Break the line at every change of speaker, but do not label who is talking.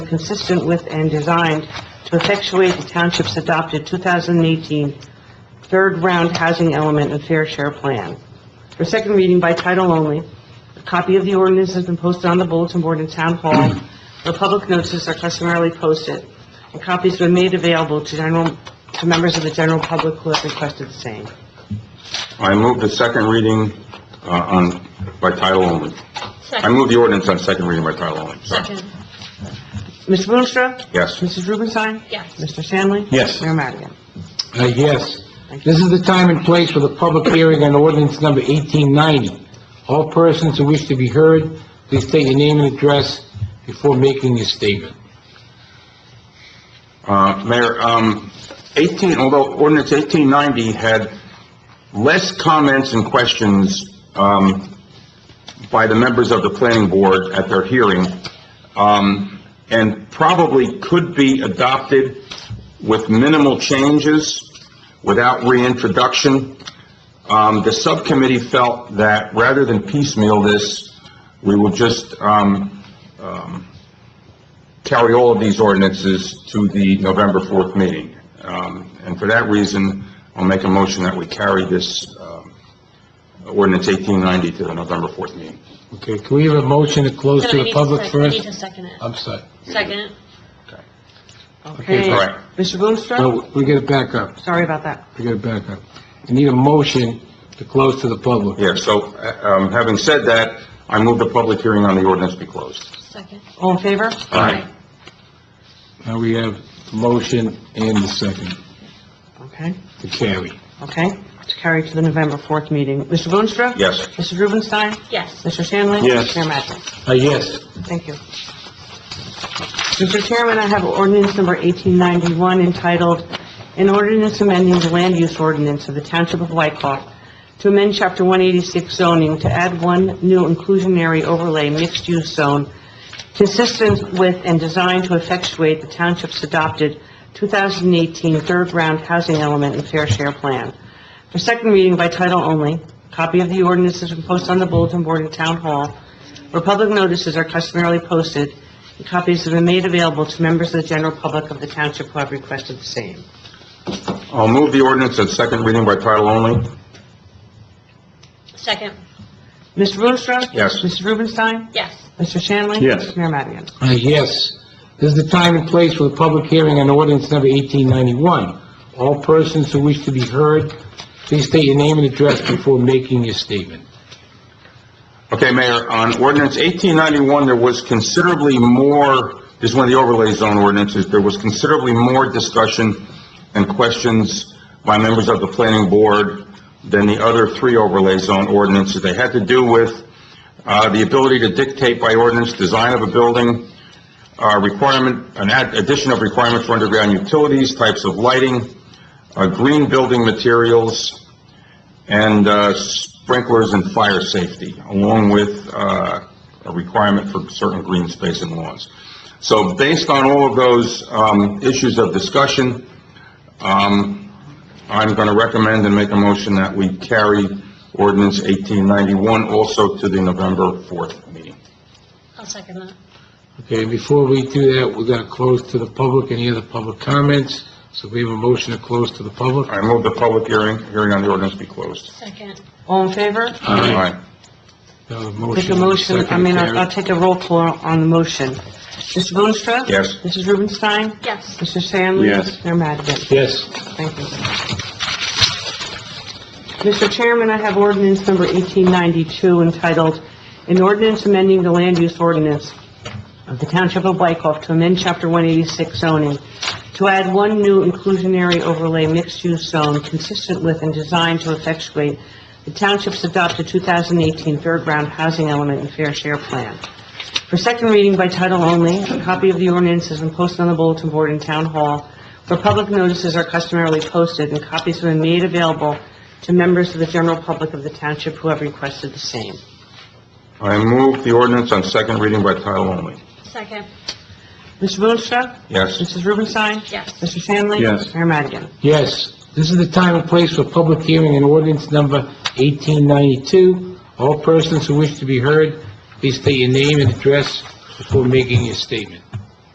consistent with and designed to effectuate the township's adopted 2018 third-round housing element and fair share plan. For second reading by title only, a copy of the ordinance has been posted on the bulletin board in Town Hall, where public notices are customarily posted, and copies have been made available to general, to members of the general public who have requested the same.
I move the second reading, uh, on, by title only. I
Second.
move the ordinance on second reading by title only. Sorry.
Second.
Ms. Boonstra?
Yes.
Mrs. Rubenstein?
Yes.
Mr. Stanley?
Yes.
Mayor Madigan?
Uh, yes. This is the time and place for the public hearing on ordinance number 1890. All persons who wish to be heard, please state your name and address before making your statement.
Uh, Mayor, um, 18, although ordinance 1890 had less comments and questions, um, by the members of the planning board at their hearing, um, and probably could be adopted with minimal changes, without reintroduction. Um, the subcommittee felt that rather than piecemeal this, we will just, um, carry all of these ordinances to the November 4th meeting. Um, And for that reason, I'll make a motion that we carry this um, ordinance 1890 to the November 4th meeting.
Okay, can we have a motion to close
No,
to
I
the
need
public
sec- I Need
first?
to second it.
I'm sorry.
Second.
Okay,
all right.
Mr. Boonstra?
No, we gotta back up,
Sorry about that.
we gotta back up. I need a motion to close to the public.
Yeah, so uh, um, having said that, I move the public hearing on the ordinance be closed.
Second.
All in favor?
Aye.
Now we have the motion and the second
Okay,
to carry.
okay. It's carried to the November 4th meeting. Mr. Boonstra?
Yes.
Mrs. Rubenstein?
Yes.
Mr. Stanley?
Yes.
Mayor Madigan?
Uh, yes.
Thank you. Mr. Chairman, I have ordinance number 1891 entitled, "An Ordinance Amending the Land Use Ordinance of the Township of Wykoff to amend Chapter 186 zoning to add one new inclusionary overlay mixed-use zone consistent with and designed to effectuate the township's adopted 2018 third-round housing element and fair share plan." For second reading by title only, copy of the ordinance has been posted on the bulletin board in Town Hall, where public notices are customarily posted, and copies have been made available to members of the general public of the township who have requested the same.
I'll move the ordinance on second reading by title only.
Second.
Ms. Boonstra?
Yes.
Mrs. Rubenstein?
Yes.
Mr. Shanley?
Yes.
Mayor Madigan?
Uh, Yes. This is the time and place for the public hearing on ordinance number 1891. All persons who wish to be heard, please state your name and address before making your statement.
Okay, Mayor, on ordinance 1891, there was considerably more, this is one of the overlay zone ordinances, there was considerably more discussion and questions by members of the planning board than the other three overlay zone ordinances. They had to do with uh, the ability to dictate by ordinance design of a building, uh, requirement, an ad- addition of requirement for underground utilities, types of lighting, uh, green building materials, and uh, sprinklers and fire safety, along with uh, a requirement for certain green space and lawns. So based on all of those um, issues of discussion, um, I'm going to recommend and make a motion that we carry ordinance 1891 also to the November 4th meeting.
I'll second that.
Okay, before we do that, we're going to close to the public. Any other public comments? So we have a motion to close to the public.
I move the public hearing, hearing on the ordinance be closed.
Second.
All in favor?
Aye.
Aye.
Take a motion, I mean, I'll I'll take a roll call on the motion. Mr. Boonstra?
Yes.
Mrs. Rubenstein?
Yes.
Mr. Shanley?
Yes.
Mayor Madigan?
Yes.
Thank you. Mr. Chairman, I have ordinance number 1892 entitled, "An Ordinance Amending the Land Use Ordinance of the Township of Wykoff to amend Chapter 186 zoning to add one new inclusionary overlay mixed-use zone consistent with and designed to effectuate the township's adopted 2018 third-round housing element and fair share plan." For second reading by title only, a copy of the ordinance has been posted on the bulletin board in Town Hall, where public notices are customarily posted, and copies have been made available to members of the general public of the township who have requested the same.
I move the ordinance on second reading by title only.
Second.
Mr. Boonstra?
Yes.
Mrs. Rubenstein?
Yes.
Mr. Shanley?
Yes.
Mayor Madigan?
Yes. This is the time and place for public hearing on ordinance number 1892. All persons who wish to be heard, please state your name and address before making your statement.